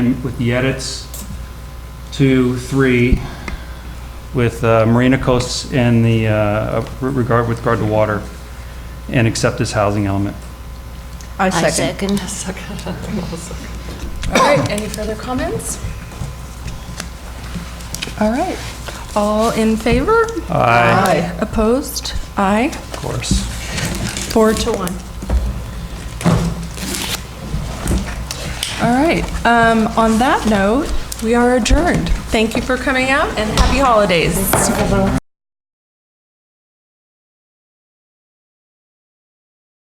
with the edits to three with uh, Marina Coasts and the, uh, regard, with regard to water, and accept this housing element. I I second. second. All right, any further comments? All right, All in favor? Aye, Aye. Opposed? Aye. of course. Four to one. All right, um, on that note, we are adjourned. Thank you for coming out and happy holidays.